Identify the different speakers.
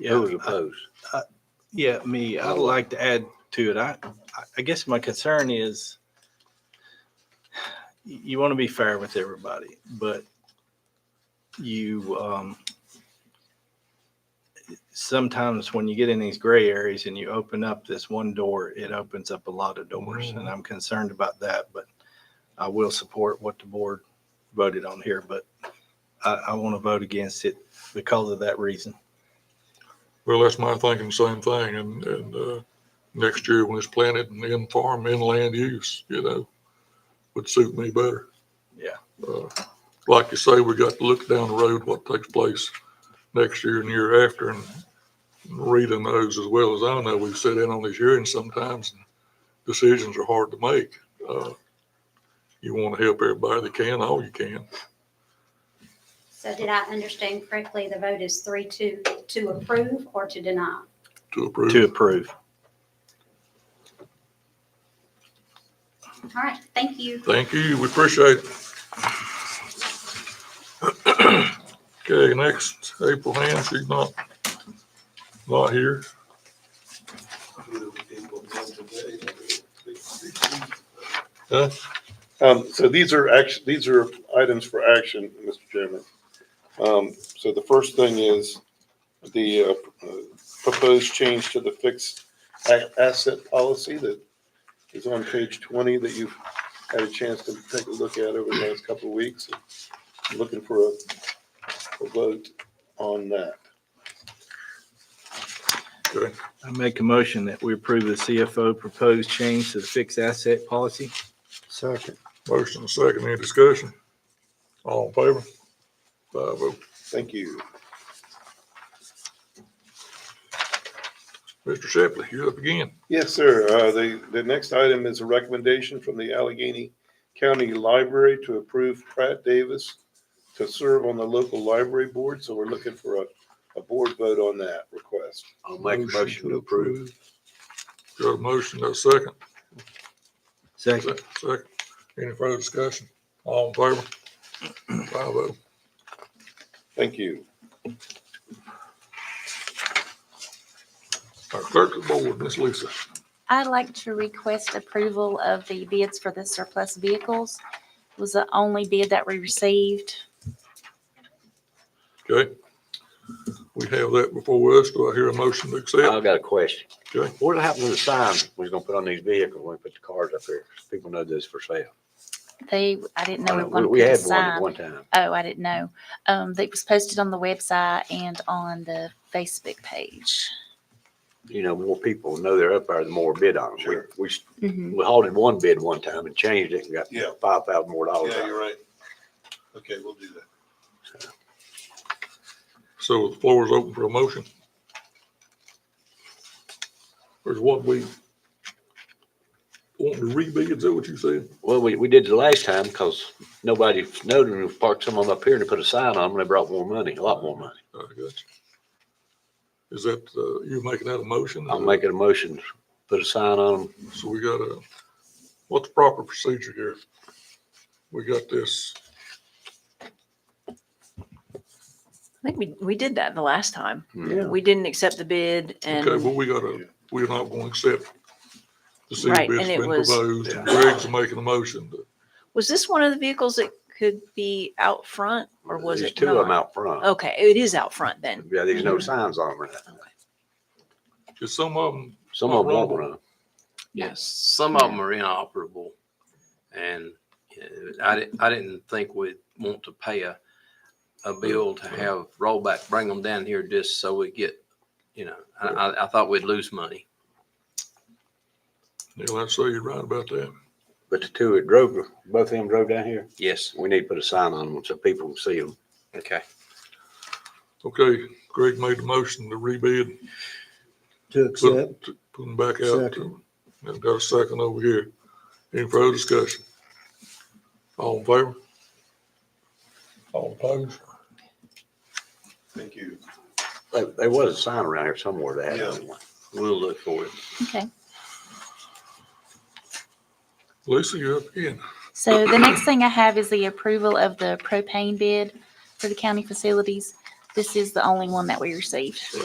Speaker 1: Yeah,
Speaker 2: Those opposed?
Speaker 1: yeah, me, I'd like to add to it. I, I- I guess my concern is y- you want to be fair with everybody, but you, um, sometimes when you get in these gray areas and you open up this one door, it opens up a lot of doors. And I'm concerned about that, but I will support what the board voted on here, but I, I want to vote against it because of that reason.
Speaker 3: Well, that's my thinking, same thing, and, and, uh, next year when it's planted and in farm, inland use, you know, would suit me better.
Speaker 1: Yeah.
Speaker 3: Uh, Like you say, we got to look down the road, what takes place next year and year after, and Rita knows as well as I know, we sit in on these hearings sometimes, and decisions are hard to make. Uh, You want to help everybody that can, all you can.
Speaker 2: So did I understand correctly, the vote is three, two, to approve or to deny?
Speaker 3: to approve.
Speaker 1: To approve.
Speaker 2: All right, thank you.
Speaker 3: Thank you, we appreciate it. Okay, next, April Hand, she's not, not here.
Speaker 4: Um, so these are action, these are items for action, Mr. Chairman. Um, so the first thing is the, uh, uh, proposed change to the fixed a- asset policy that is on page twenty that you've had a chance to take a look at over the last couple of weeks. I'm Looking for a, a vote on that.
Speaker 3: Okay,
Speaker 1: I make a motion that we approve the CFO proposed change to the fixed asset policy.
Speaker 4: Second.
Speaker 3: motion and second, any discussion? All in favor? Five oh.
Speaker 4: Thank you.
Speaker 3: Mr. Shepley, you're up again.
Speaker 4: Yes, sir. Uh, The, the next item is a recommendation from the Allegheny County Library to approve Pratt Davis to serve on the local library board, so we're looking for a, a board vote on that request.
Speaker 5: I'll make a motion to approve.
Speaker 3: Got a motion, got a second,
Speaker 1: Second.
Speaker 3: second, second. Any further discussion? All in favor? Five oh.
Speaker 4: Thank you.
Speaker 3: Our clerk of the board, Miss Lisa.
Speaker 6: I'd like to request approval of the bids for the surplus vehicles. It Was the only bid that we received.
Speaker 3: Okay. We have that before us. Do I hear a motion to accept?
Speaker 5: I've got a question.
Speaker 3: Okay.
Speaker 5: What happened to the sign we was gonna put on these vehicles when we put the cars up here? People know this for sale.
Speaker 6: They, I didn't know we
Speaker 5: Uh, We
Speaker 6: wanted
Speaker 5: we
Speaker 6: to
Speaker 5: had one at
Speaker 6: sign.
Speaker 5: one time.
Speaker 6: Oh, I didn't know. Um, that was posted on the website and on the Facebook page.
Speaker 5: You know, more people know they're up there, the more bid on them.
Speaker 4: Sure.
Speaker 5: We, we-
Speaker 6: Mhm.
Speaker 5: we halted one bid one time and changed it and got
Speaker 4: Yeah.
Speaker 5: five thousand more dollars. out of it.
Speaker 4: right. Okay, we'll do that.
Speaker 3: So the floor is open for a motion. There's what we want to rebid, is that what you said?
Speaker 5: Well, we, we did the last time because nobody noted and we parked some of them up here and they put a sign on them and they brought more money, a lot more money.
Speaker 3: I got you. Is that, uh, you making that a motion?
Speaker 5: I'm making a motion, to put a sign on them.
Speaker 3: So we got a, what's the proper procedure here? We got this,
Speaker 7: I think we, we did that the last time.
Speaker 5: Yeah.
Speaker 7: We didn't accept the bid
Speaker 3: okay,
Speaker 7: and,
Speaker 3: well, we gotta, we're not gonna accept the city
Speaker 7: Right,
Speaker 3: bid's
Speaker 7: and it
Speaker 3: been
Speaker 7: was-
Speaker 3: proposed. and Greg's making a motion. to-
Speaker 7: was this one of the vehicles that could be out front or was
Speaker 5: There's
Speaker 7: it
Speaker 5: Two of them
Speaker 7: not? Oh.
Speaker 5: out front.
Speaker 7: Okay, it is out front then.
Speaker 5: Yeah, there's no signs on them. or nothing.
Speaker 3: Cause some of them,
Speaker 5: Some of them won't run.
Speaker 8: Yes, some of them are inoperable. And uh, I didn't, I didn't think we'd want to pay a, a bill to have rollback, bring them down here just so we get, you know, I, I, I thought we'd lose money.
Speaker 3: Neil, I'd say you're right about that.
Speaker 5: But the two that drove, both of them drove down here,
Speaker 8: Yes.
Speaker 5: we need to put a sign on them so people can see them.
Speaker 8: Okay.
Speaker 3: Okay, Greg made the motion to rebid.
Speaker 9: To
Speaker 3: Put
Speaker 9: accept,
Speaker 3: 'em- t- Put them back out. to- I've got a second over here. Any further discussion? All in favor? All opposed?
Speaker 4: Thank you.
Speaker 5: There, there was a sign around here somewhere that had
Speaker 4: Yeah.
Speaker 5: one.
Speaker 8: We'll look for it.
Speaker 6: Okay.
Speaker 3: Lisa, you're up again.
Speaker 6: So the next thing I have is the approval of the propane bid for the county facilities. This is the only one that we received.